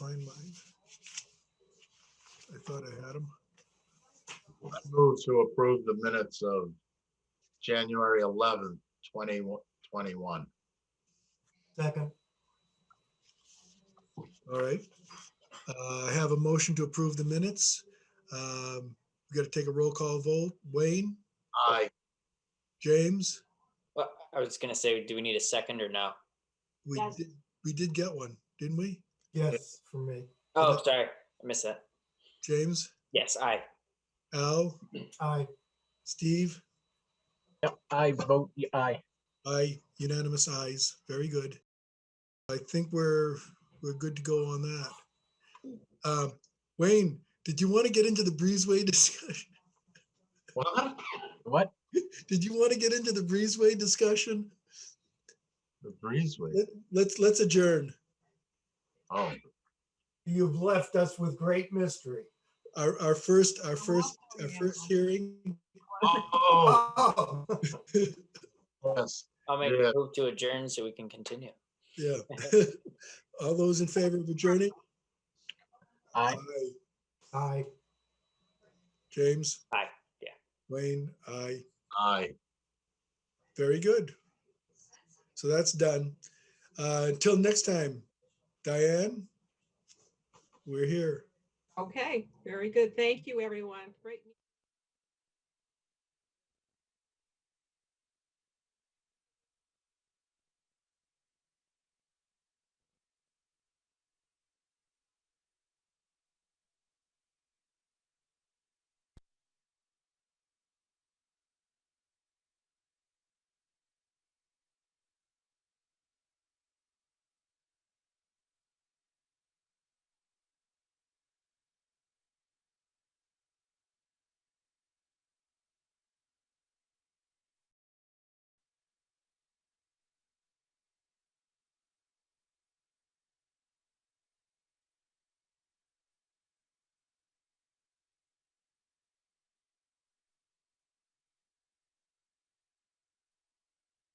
thought I had them. I Move to approve the minutes of January eleventh, twenty twenty-one. Second, All right. Uh, I have a motion to approve the minutes. Um, We got to take a roll call vote. Wayne, Aye, James, Well, I was gonna say, do we need a second or no? we, Yes. did- we did get one, didn't we? yes, for me. Oh, sorry, I missed that. James, Yes, aye. Al, Aye, Steve? Yep, I vote y- aye. Aye, unanimous ayes. Very good. I think we're, we're good to go on that. Um, Wayne, did you want to get into the breezeway discussion? what? What? Did you want to get into the breezeway discussion? The breezeway, Let- Let's, let's adjourn. oh. you've left us with great mystery. Our, our first, our first, our first hearing. Oh, Oh, yes, I'll make Yeah. a move to adjourn so we can continue. Yeah. All those in favor of adjourning? Aye. aye. James? Aye, yeah. Wayne, aye. aye. Very good. So that's done. Uh, Until next time, Diane, we're here. Okay, very good. Thank you, everyone. Great.